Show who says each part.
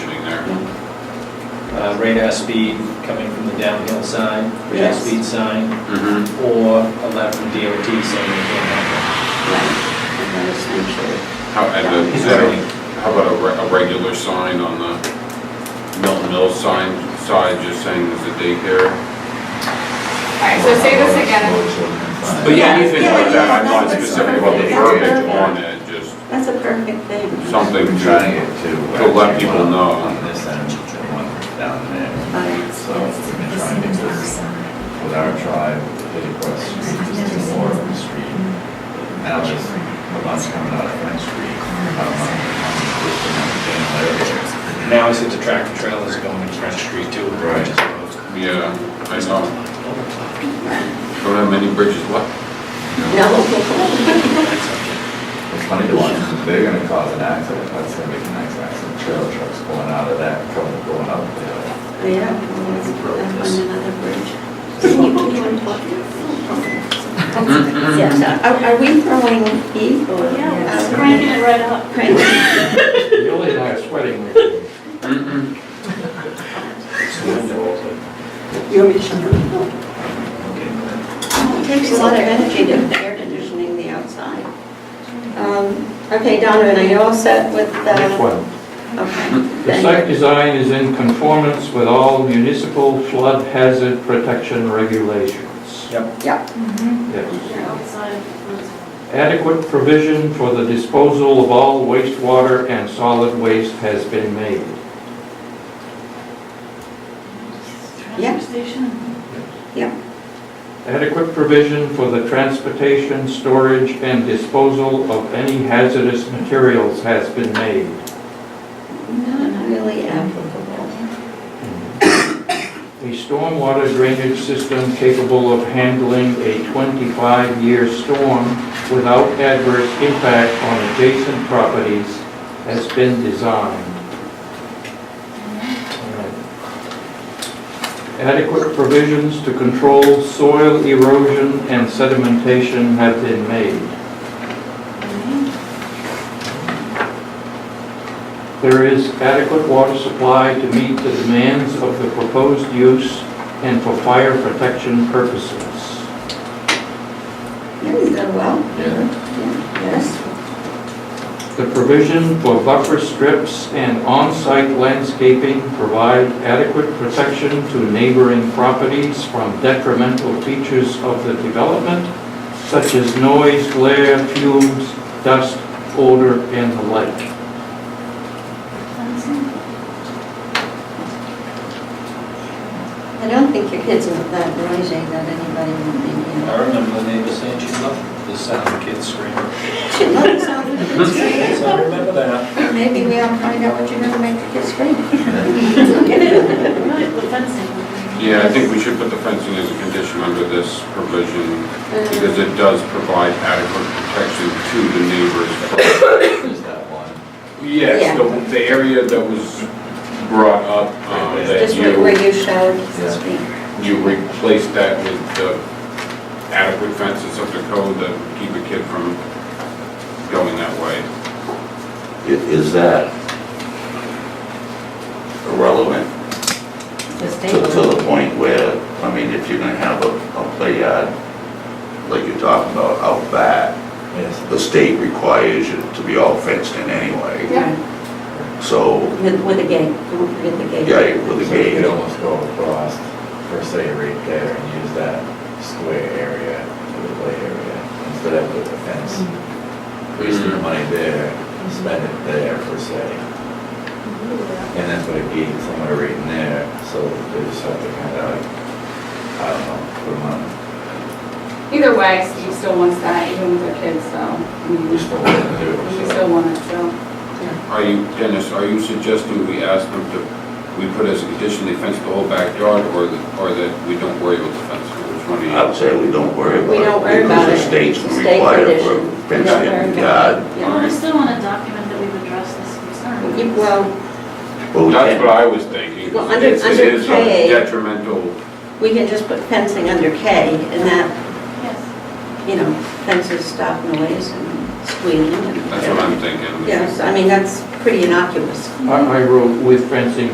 Speaker 1: uh, radar speed coming from the downhill sign, radar
Speaker 2: Yes.
Speaker 1: speed sign,
Speaker 2: Mm-hmm.
Speaker 1: or a letter from DOT saying they can't have
Speaker 2: And then essentially,
Speaker 3: How, and the-
Speaker 1: He's
Speaker 3: is that a-
Speaker 1: waiting.
Speaker 3: how about a, re- a regular sign on the Milton Mills sign, side just saying there's a daycare?
Speaker 4: Alright, so say this again.
Speaker 3: But yeah, anything
Speaker 2: Yeah,
Speaker 3: like that,
Speaker 2: yeah,
Speaker 3: I'm
Speaker 2: no,
Speaker 3: not
Speaker 2: that's
Speaker 3: specific about the
Speaker 2: perfect.
Speaker 3: verbiage
Speaker 2: Yeah.
Speaker 3: on it, just
Speaker 2: that's a perfect thing.
Speaker 3: something
Speaker 5: We're trying
Speaker 3: to,
Speaker 5: it to.
Speaker 3: to let people know.
Speaker 5: On this end, to one down there.
Speaker 2: But it's-
Speaker 5: So we've been trying to do this with our tribe, with the Cross Street, just to more of the street. Now there's a lot coming out of Front Street. out on- on this and
Speaker 1: that. Now I see the tractor trailers going to French Street too. which
Speaker 5: Right.
Speaker 1: is closed.
Speaker 3: yeah, I know.
Speaker 1: Um,
Speaker 3: Don't have many bridges left.
Speaker 2: No.
Speaker 1: That's okay.
Speaker 5: It's funny to watch, 'cause they're gonna cause an accident, that's gonna be the next accident, trail trucks going out of that, coming, going up there.
Speaker 2: Yeah, we'll always put that on another bridge. Mm-hmm. Can you, can you unplug
Speaker 6: Mm-hmm.
Speaker 2: it? Yes, are, are we throwing heat or?
Speaker 4: Yeah, just cranking it right up.
Speaker 2: Crank.
Speaker 6: Billy and I are sweating. with you.
Speaker 3: Mm-mm.
Speaker 2: You want me to shut it off?
Speaker 1: Okay.
Speaker 2: Oh, It takes a lot of energy to air conditioning the outside. Um, Okay, Donovan, are you all set with the?
Speaker 6: Next one.
Speaker 2: Okay.
Speaker 6: The
Speaker 2: then-
Speaker 6: site design is in conformance with all municipal flood hazard protection regulations.
Speaker 1: Yep.
Speaker 2: Yeah.
Speaker 6: Yes. Adequate provision for the disposal of all wastewater and solid waste has been made.
Speaker 2: Yeah.
Speaker 4: station.
Speaker 6: Adequate provision for the transportation, storage, and disposal of any hazardous materials has been made.
Speaker 2: Not really applicable.
Speaker 6: A stormwater drainage system capable of handling a 25-year storm without adverse impact on adjacent properties has been designed. Adequate provisions to control soil erosion and sedimentation have been made. There is adequate water supply to meet the demands of the proposed use and for fire protection purposes.
Speaker 2: Yeah, you done well.
Speaker 5: Yeah.
Speaker 2: Yeah, Yes.
Speaker 6: The provision for buffer strips and on-site landscaping provide adequate protection to neighboring properties from detrimental features of the development, such as noise, glare, fumes, dust, odor, and the like.
Speaker 2: I don't think your kids are that noisy that anybody would be, you
Speaker 1: I remember the neighbor saying she loved the sound of kids screaming.
Speaker 2: She loves sound of kids screaming.
Speaker 1: So I remember that.
Speaker 2: Maybe we ought to find out what you're gonna make the kids scream.
Speaker 3: Yeah, I think we should put the fencing as a condition under this provision, because
Speaker 2: Mm.
Speaker 3: it does provide adequate protection to the neighbors.
Speaker 5: There's that one.
Speaker 3: Yes, the, the area that was brought up, um, that
Speaker 2: Just where
Speaker 3: you,
Speaker 2: where you showed
Speaker 5: Yeah.
Speaker 2: the screen.
Speaker 3: you replaced that with the adequate fences of the code that would keep a kid from going that way.
Speaker 7: I- Is that relevant to, to the point where, I mean, if you're gonna have a, a play yard, like you're talking about out back,
Speaker 5: Yes.
Speaker 7: the state requires you to be all fenced in anyway.
Speaker 2: Yeah.
Speaker 7: So,
Speaker 2: With, with a gate, don't forget the gate.
Speaker 7: yeah, with the
Speaker 5: So you
Speaker 7: gate,
Speaker 5: could almost go across, per se, right there and use that square area for the play area instead of with the fence.
Speaker 7: Mm-hmm.
Speaker 5: Wasting the money there, spend it there per se.
Speaker 7: Mm-hmm.
Speaker 5: And then put a gate somewhere right in there, so they just have to kind of, I don't know, put them on,
Speaker 4: Either way, Steve still wants that, even with their kids, so. I mean,
Speaker 5: we still want to do
Speaker 4: We
Speaker 5: it. so.
Speaker 4: still want it, so.
Speaker 3: Are you, Dennis, are you suggesting we ask them to, we put as a condition they fence the whole backyard, or, that- or that we don't worry about the fence? Which one do you?
Speaker 7: I would say we don't worry about it.
Speaker 2: We don't worry about
Speaker 7: Because
Speaker 2: it.
Speaker 7: the state's
Speaker 2: It's a state
Speaker 7: required
Speaker 2: condition.
Speaker 7: for
Speaker 2: We don't
Speaker 7: fenced
Speaker 2: worry
Speaker 7: in
Speaker 2: about it.
Speaker 7: yard.
Speaker 4: Well, we still want to document that we've addressed this concern.
Speaker 2: You- Well,
Speaker 7: But we
Speaker 3: That's
Speaker 7: can't,
Speaker 3: what I was thinking.
Speaker 2: Well, under-
Speaker 3: It's-
Speaker 2: under
Speaker 3: It is a
Speaker 2: K.
Speaker 3: detrimental,
Speaker 2: we can just put fencing under K and that,
Speaker 4: Yes.
Speaker 2: you know, fences stop noise and squealing and.
Speaker 3: that's what I'm thinking.
Speaker 2: Yes, I mean, that's pretty innocuous.
Speaker 6: I I wrote with fencing